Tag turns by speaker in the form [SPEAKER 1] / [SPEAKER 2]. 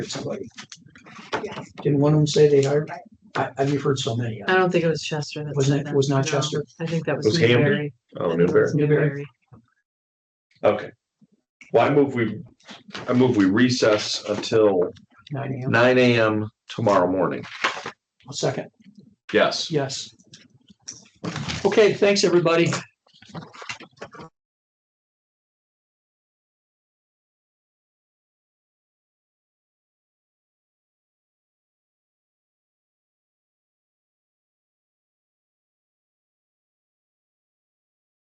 [SPEAKER 1] or somebody.
[SPEAKER 2] Yes.
[SPEAKER 1] Didn't one of them say they hired? I, I've heard so many. uh,
[SPEAKER 3] I don't think it was Chester that.
[SPEAKER 1] Was
[SPEAKER 3] said
[SPEAKER 1] that- was not
[SPEAKER 3] No,
[SPEAKER 1] Chester?
[SPEAKER 3] I think that was
[SPEAKER 4] Was Hamden?
[SPEAKER 3] Newberry.
[SPEAKER 4] Oh,
[SPEAKER 3] I think that
[SPEAKER 4] Newberry.
[SPEAKER 3] was
[SPEAKER 1] Newberry.
[SPEAKER 3] Newberry.
[SPEAKER 4] Okay. Well, I move we, I move we recess until
[SPEAKER 1] Nine AM.
[SPEAKER 4] nine AM tomorrow morning.
[SPEAKER 1] I'll Second,
[SPEAKER 4] Yes.
[SPEAKER 1] yes. Okay, thanks, everybody.